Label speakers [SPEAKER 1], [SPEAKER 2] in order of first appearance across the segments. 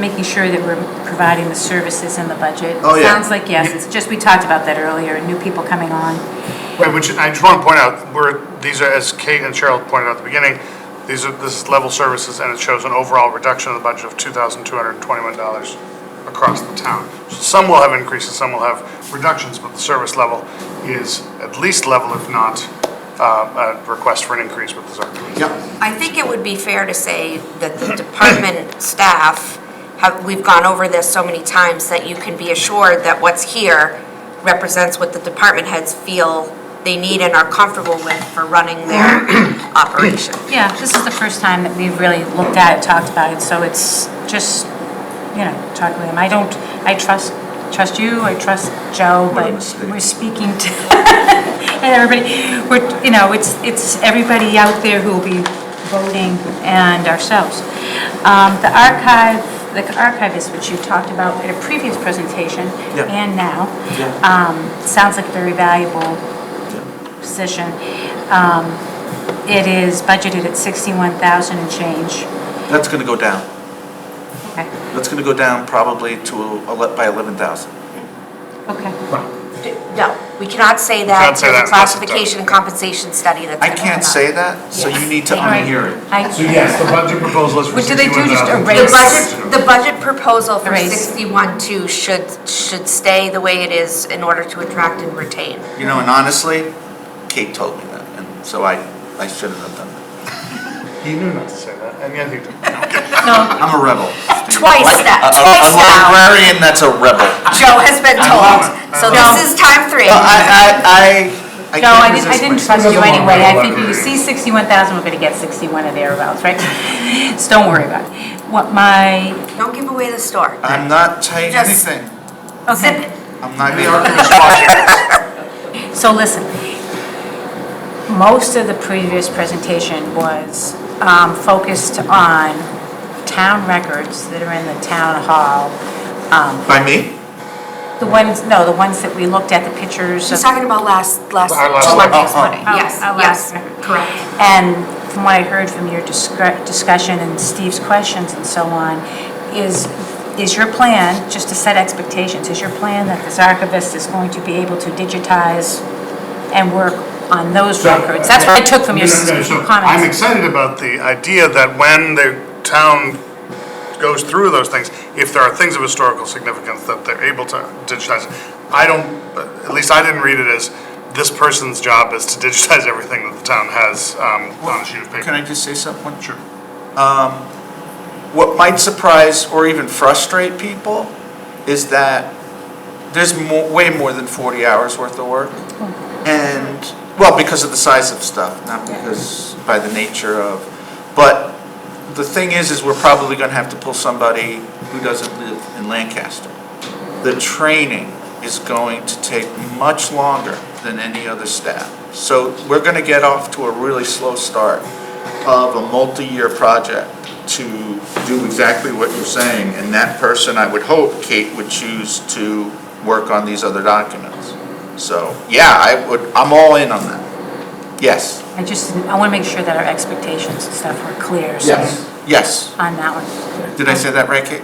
[SPEAKER 1] Making sure that we're providing the services in the budget.
[SPEAKER 2] Oh, yeah.
[SPEAKER 1] Sounds like yes, it's just, we talked about that earlier, new people coming on.
[SPEAKER 3] Right, which I just want to point out, we're, these are, as Kate and Cheryl pointed out at the beginning, these are, this is level services, and it shows an overall reduction of the budget of $2,221 across the town. Some will have increases, some will have reductions, but the service level is at least level, if not uh, a request for an increase with the ZARC.
[SPEAKER 2] Yep,
[SPEAKER 4] I think it would be fair to say that the department staff have, we've gone over this so many times that you can be assured that what's here represents what the department heads feel they need and are comfortable with for running their operation.
[SPEAKER 1] Yeah, this is the first time that we've really looked at it, talked about it, so it's just, you know, talk with him. I don't, I trust, trust you, I trust Joe,
[SPEAKER 2] What a
[SPEAKER 1] but
[SPEAKER 2] mistake.
[SPEAKER 1] we're speaking to, and everybody, we're, you know, it's, it's everybody out there who will be voting and ourselves. Um, The archive, the archivist, which you talked about in a previous presentation
[SPEAKER 2] Yeah.
[SPEAKER 1] and now,
[SPEAKER 2] yeah,
[SPEAKER 1] um, sounds like a very valuable position. Um, It is budgeted at 61,000 and change.
[SPEAKER 2] that's gonna go down.
[SPEAKER 1] Okay,
[SPEAKER 2] That's gonna go down probably to, ele- by 11,000.
[SPEAKER 1] okay.
[SPEAKER 4] No, we cannot say
[SPEAKER 3] Can't say
[SPEAKER 4] that to the
[SPEAKER 3] that unless it's done.
[SPEAKER 4] classification and compensation study that's.
[SPEAKER 2] I
[SPEAKER 4] gonna
[SPEAKER 2] can't
[SPEAKER 4] come
[SPEAKER 2] say
[SPEAKER 4] up.
[SPEAKER 2] that, so you need to
[SPEAKER 1] Right.
[SPEAKER 2] unhear it.
[SPEAKER 1] I-
[SPEAKER 3] So yes, the budget proposal is for
[SPEAKER 1] What do they do, just
[SPEAKER 3] $61,000.
[SPEAKER 4] The
[SPEAKER 1] erase?
[SPEAKER 4] budget, the budget proposal for
[SPEAKER 1] Raise.
[SPEAKER 4] sixty-one two should, should stay the way it is in order to attract and retain.
[SPEAKER 2] You know, and honestly, Kate told me that, and so I, I shouldn't have done that.
[SPEAKER 3] He knew not to say that, and yet he did.
[SPEAKER 1] No,
[SPEAKER 2] I'm a rebel.
[SPEAKER 4] Twice that,
[SPEAKER 2] A- a-
[SPEAKER 4] twice now.
[SPEAKER 2] A librarian that's a rebel.
[SPEAKER 4] Joe has been told. So
[SPEAKER 1] No.
[SPEAKER 4] this is time three.
[SPEAKER 2] Well, I, I, I, I
[SPEAKER 1] no, I
[SPEAKER 2] can't
[SPEAKER 1] didn't, I
[SPEAKER 2] resist
[SPEAKER 1] didn't
[SPEAKER 2] myself.
[SPEAKER 1] trust you anyway. I think if you see 61,000, we're going to get 61 or thereabouts, right? So don't worry about it. What my,
[SPEAKER 4] Don't give away the store.
[SPEAKER 2] I'm not saying
[SPEAKER 4] Just-
[SPEAKER 2] anything.
[SPEAKER 1] okay,
[SPEAKER 2] I'm not the archivist.
[SPEAKER 1] so listen. Most of the previous presentation was um, focused on town records that are in the town hall,
[SPEAKER 2] By me?
[SPEAKER 1] The ones, no, the ones that we looked at, the pictures
[SPEAKER 4] She's
[SPEAKER 1] of,
[SPEAKER 4] talking about last, last,
[SPEAKER 3] Our last
[SPEAKER 4] to
[SPEAKER 3] one.
[SPEAKER 4] Monday's
[SPEAKER 2] Oh, oh.
[SPEAKER 4] Monday.
[SPEAKER 1] Oh,
[SPEAKER 4] Yes,
[SPEAKER 1] our last
[SPEAKER 4] yes,
[SPEAKER 1] one.
[SPEAKER 4] correct.
[SPEAKER 1] and from what I heard from your discre- discussion and Steve's questions and so on, is, is your plan, just to set expectations, is your plan that this archivist is going to be able to digitize and work on those
[SPEAKER 3] So-
[SPEAKER 1] records? That's what I took from your
[SPEAKER 3] No, no, no,
[SPEAKER 1] s-
[SPEAKER 3] so I'm
[SPEAKER 1] comments.
[SPEAKER 3] excited about the idea that when the town goes through those things, if there are things of historical significance that they're able to digitize, I don't, at least I didn't read it as this person's job is to digitize everything that the town has um, on a sheet of
[SPEAKER 2] Can
[SPEAKER 3] paper.
[SPEAKER 2] I just say something? Sure. Um, What might surprise or even frustrate people is that there's mo- way more than 40 hours worth of work. And, well, because of the size of stuff, not because, by the nature of. But the thing is, is we're probably going to have to pull somebody who doesn't live in Lancaster. The training is going to take much longer than any other staff. So we're going to get off to a really slow start of a multi-year project to do exactly what you're saying. And that person, I would hope, Kate would choose to work on these other documents. So, yeah, I would, I'm all in on that. Yes.
[SPEAKER 1] I just, I want to make sure that our expectations and stuff were clear, so
[SPEAKER 2] Yes.
[SPEAKER 1] on that one.
[SPEAKER 2] Did I say that right, Kate?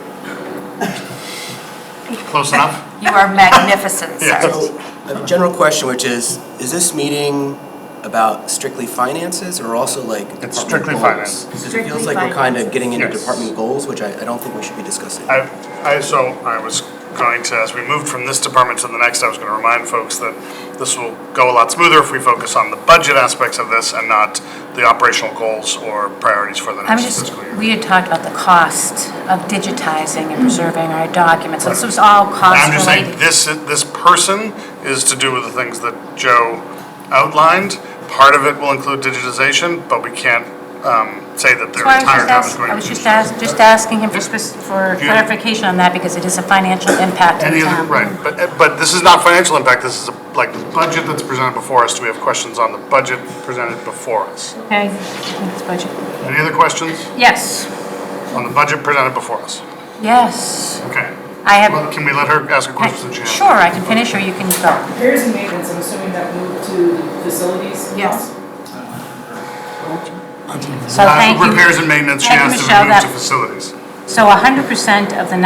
[SPEAKER 3] Close enough?
[SPEAKER 4] You are magnificent, sir.
[SPEAKER 3] Yes.
[SPEAKER 5] So, I have a general question, which is, is this meeting about strictly finances or also like department goals?
[SPEAKER 3] strictly finance.
[SPEAKER 5] Because it
[SPEAKER 1] Strictly
[SPEAKER 5] feels like we're kind of getting into
[SPEAKER 3] Yes.
[SPEAKER 5] department goals, which I, I don't think we should be discussing.
[SPEAKER 3] I, I, so I was going to, as we moved from this department to the next, I was going to remind folks that this will go a lot smoother if we focus on the budget aspects of this and not the operational goals or priorities for the
[SPEAKER 1] I'm
[SPEAKER 3] next
[SPEAKER 1] just,
[SPEAKER 3] fiscal year.
[SPEAKER 1] we had talked about the cost of digitizing and preserving our documents, so this was all cost
[SPEAKER 3] I'm just saying,
[SPEAKER 1] related.
[SPEAKER 3] this, this person is to do with the things that Joe outlined. Part of it will include digitization, but we can't um, say that
[SPEAKER 1] That's
[SPEAKER 3] their
[SPEAKER 1] why I was just
[SPEAKER 3] entire time is
[SPEAKER 1] asking,
[SPEAKER 3] going
[SPEAKER 1] I
[SPEAKER 3] to
[SPEAKER 1] was
[SPEAKER 3] be
[SPEAKER 1] just
[SPEAKER 3] digitized.
[SPEAKER 1] ask, just asking him for spec- for
[SPEAKER 3] Yeah.
[SPEAKER 1] clarification on that, because it is a financial impact on
[SPEAKER 3] Any
[SPEAKER 1] the
[SPEAKER 3] other,
[SPEAKER 1] town.
[SPEAKER 3] right, but, eh, but this is not financial impact, this is a- like the budget that's presented before us. Do we have questions on the budget presented before us?
[SPEAKER 1] Okay, it's budget.
[SPEAKER 3] Any other questions
[SPEAKER 1] Yes,
[SPEAKER 3] on the budget presented before us?
[SPEAKER 1] yes,
[SPEAKER 3] Okay.
[SPEAKER 1] I
[SPEAKER 3] Well,
[SPEAKER 1] have,
[SPEAKER 3] Can we let her ask a question since she has?
[SPEAKER 1] sure, I can finish, or you can go.
[SPEAKER 6] Repairs and maintenance, I'm assuming that moved to facilities?
[SPEAKER 4] Yes.
[SPEAKER 1] So
[SPEAKER 3] Uh,
[SPEAKER 1] thank you.
[SPEAKER 3] Repairs and maintenance, she
[SPEAKER 1] Thank you,
[SPEAKER 3] has to be
[SPEAKER 1] Michelle,
[SPEAKER 3] moved to
[SPEAKER 1] that-
[SPEAKER 3] facilities.
[SPEAKER 1] So 100% of the